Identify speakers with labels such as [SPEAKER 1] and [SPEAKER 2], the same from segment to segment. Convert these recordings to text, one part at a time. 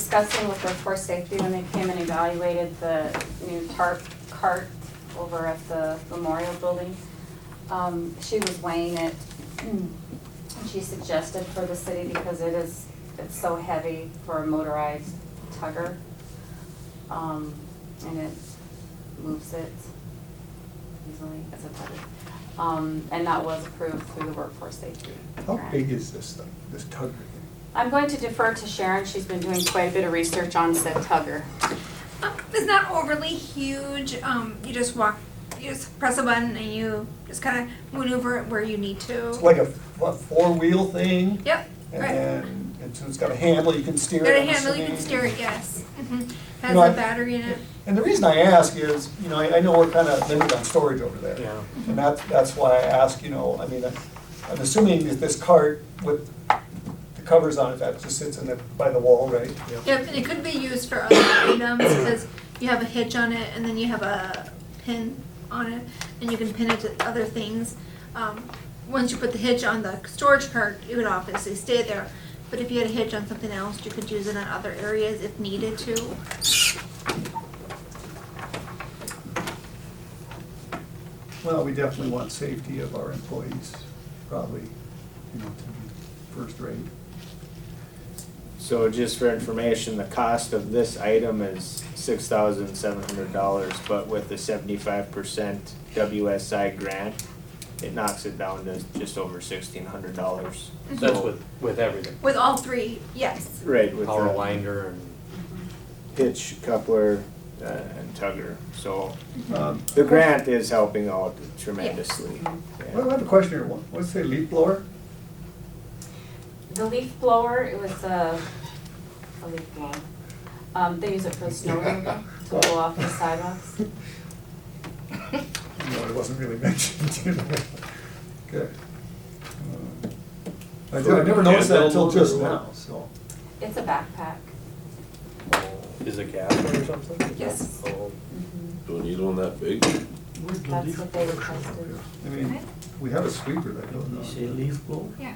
[SPEAKER 1] discussing with workforce safety when they came and evaluated the new tarp cart over at the memorial building. Um, she was weighing it, and she suggested for the city because it is, it's so heavy for a motorized tugger. Um, and it moves it easily as a tugger. Um, and that was approved through the workforce safety.
[SPEAKER 2] How
[SPEAKER 1] grant.
[SPEAKER 2] big is this thing, this tug rig?
[SPEAKER 1] I'm going to defer to Sharon, she's been doing quite a bit of research on said tugger.
[SPEAKER 3] Um, It's not overly huge. Um, you just walk, you just press a button and you just kind of maneuver it where you need to.
[SPEAKER 2] It's like a, what, four-wheel thing?
[SPEAKER 3] Oh. Yep,
[SPEAKER 2] And
[SPEAKER 3] right.
[SPEAKER 2] then, and so it's got a handle, you can steer it.
[SPEAKER 3] Got a
[SPEAKER 2] I'm
[SPEAKER 3] handle, you can
[SPEAKER 2] assuming.
[SPEAKER 3] steer it, yes. Mhm. Has
[SPEAKER 2] know, I-
[SPEAKER 3] a battery in it.
[SPEAKER 2] And the reason I ask is, you know, I, I know we're kind of limited on storage over there.
[SPEAKER 4] Yeah.
[SPEAKER 2] And that's, that's why I ask, you know, I mean, I'm assuming that this cart with the covers on it, that just sits in the, by the wall, right?
[SPEAKER 3] Yep, and it could be used for other items because you have a hitch on it and then you have a pin on it and you can pin it to other things. Um, once you put the hitch on the storage cart, it would obviously stay there. But if you had a hitch on something else, you could use it on other areas if needed to.
[SPEAKER 2] Well, we definitely want safety of our employees, probably, you know, to be first rate.
[SPEAKER 4] So just for information, the cost of this item is six thousand seven hundred dollars, but with the seventy-five percent WSI grant, it knocks it down to just over sixteen hundred dollars.
[SPEAKER 5] That's with, with everything,
[SPEAKER 3] With all three, yes.
[SPEAKER 4] Right, with
[SPEAKER 5] power
[SPEAKER 4] the
[SPEAKER 5] winder and.
[SPEAKER 4] hitch, coupler, uh, and tugger, so
[SPEAKER 2] Um,
[SPEAKER 4] the grant is helping out tremendously. yeah.
[SPEAKER 2] Well, I have a question here, What- what's the leaf blower?
[SPEAKER 1] The leaf blower, it was a, a leaf blower. Um, they use it for the snow removal, to blow off the sidewalks.
[SPEAKER 2] No, it wasn't really mentioned, you know. Okay. Um, I did- I never noticed that until just now, so.
[SPEAKER 1] It's a backpack.
[SPEAKER 5] Is it gas or something?
[SPEAKER 3] Yes.
[SPEAKER 5] Oh,
[SPEAKER 6] Do we need one that big?
[SPEAKER 1] That's what they requested.
[SPEAKER 2] I mean, we have a sweeper that goes
[SPEAKER 7] You say
[SPEAKER 2] on.
[SPEAKER 7] leaf blower?
[SPEAKER 3] Yeah.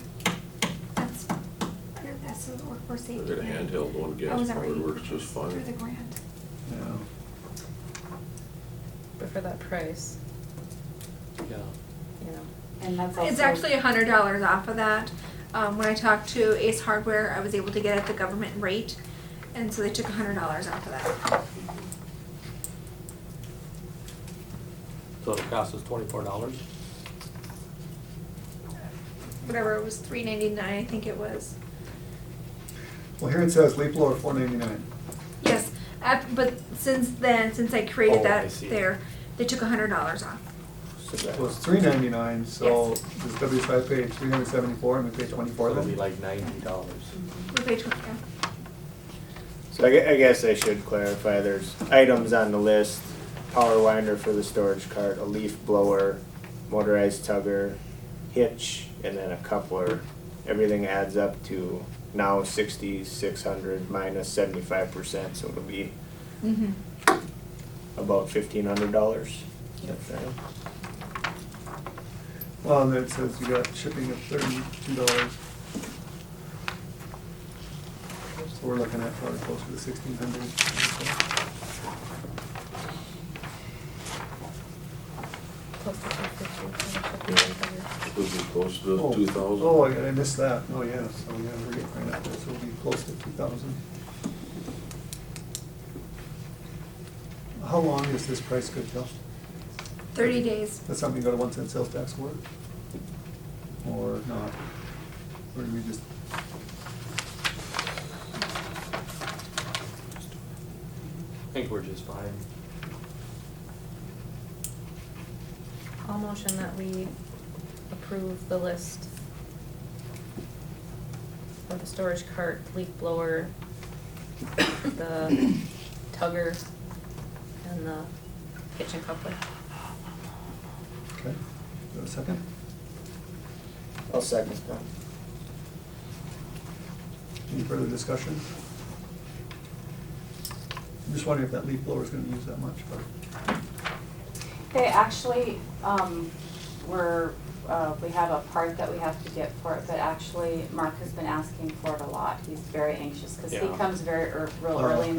[SPEAKER 3] That's, that's the workforce
[SPEAKER 6] I
[SPEAKER 3] safety. Oh,
[SPEAKER 6] got a handheld one,
[SPEAKER 3] I
[SPEAKER 6] gas
[SPEAKER 3] was
[SPEAKER 6] powered,
[SPEAKER 3] already
[SPEAKER 6] works just
[SPEAKER 3] Through the
[SPEAKER 6] fine.
[SPEAKER 3] grant.
[SPEAKER 2] Yeah.
[SPEAKER 8] But for that price,
[SPEAKER 5] Yeah.
[SPEAKER 8] you know.
[SPEAKER 1] And that's also.
[SPEAKER 3] It's actually a hundred dollars off of that. Um, when I talked to Ace Hardware, I was able to get it at the government rate, and so they took a hundred dollars off of that.
[SPEAKER 5] So it costs us twenty-four dollars?
[SPEAKER 3] Whatever, it was three ninety-nine, I think it was.
[SPEAKER 2] Well, here it says leaf blower four ninety-nine.
[SPEAKER 3] Yes, af- but since then, since I
[SPEAKER 5] Oh,
[SPEAKER 3] created
[SPEAKER 5] I
[SPEAKER 3] that
[SPEAKER 5] see.
[SPEAKER 3] there, they took a hundred dollars off.
[SPEAKER 5] So
[SPEAKER 2] It was
[SPEAKER 5] that
[SPEAKER 2] three ninety-nine, so
[SPEAKER 3] Yes.
[SPEAKER 2] this W five paid three hundred seventy-four and we paid twenty-four
[SPEAKER 5] would be
[SPEAKER 2] then.
[SPEAKER 5] like ninety dollars.
[SPEAKER 3] We paid twenty, yeah.
[SPEAKER 4] So I gue- I guess I should clarify, there's items on the list, power winder for the storage cart, a leaf blower, motorized tugger, hitch, and then a coupler. Everything adds up to now sixty-six hundred minus seventy-five percent, so it'll be
[SPEAKER 3] Mm-hmm.
[SPEAKER 4] about fifteen hundred dollars.
[SPEAKER 2] Well, and then it says you got shipping of thirty-two dollars. So we're looking at probably closer to sixteen hundred.
[SPEAKER 8] Plus the two fifty.
[SPEAKER 6] This is close to
[SPEAKER 2] Oh.
[SPEAKER 6] two thousand.
[SPEAKER 2] Oh, I I missed that, oh, yeah, so, yeah, we're getting right up there, so we'll be close to two thousand. How long is this price good till?
[SPEAKER 3] Thirty days.
[SPEAKER 2] That's something you go to one cent sales tax for? Or not? Or do we just?
[SPEAKER 5] I think we're just fine.
[SPEAKER 8] I'll motion that we approve the list for the storage cart, leaf blower, the tugger, and the kitchen coupler.
[SPEAKER 2] Okay, Do I have a second?
[SPEAKER 4] I'll second that.
[SPEAKER 2] Any further discussion? I'm just wondering if that leaf blower is gonna use that much, but.
[SPEAKER 1] They actually, um, were uh, we have a part that we have to get for it, but actually Mark has been asking for it a lot. He's very anxious, cause he
[SPEAKER 5] Yeah.
[SPEAKER 1] comes very ear- real
[SPEAKER 2] Oh.
[SPEAKER 1] early in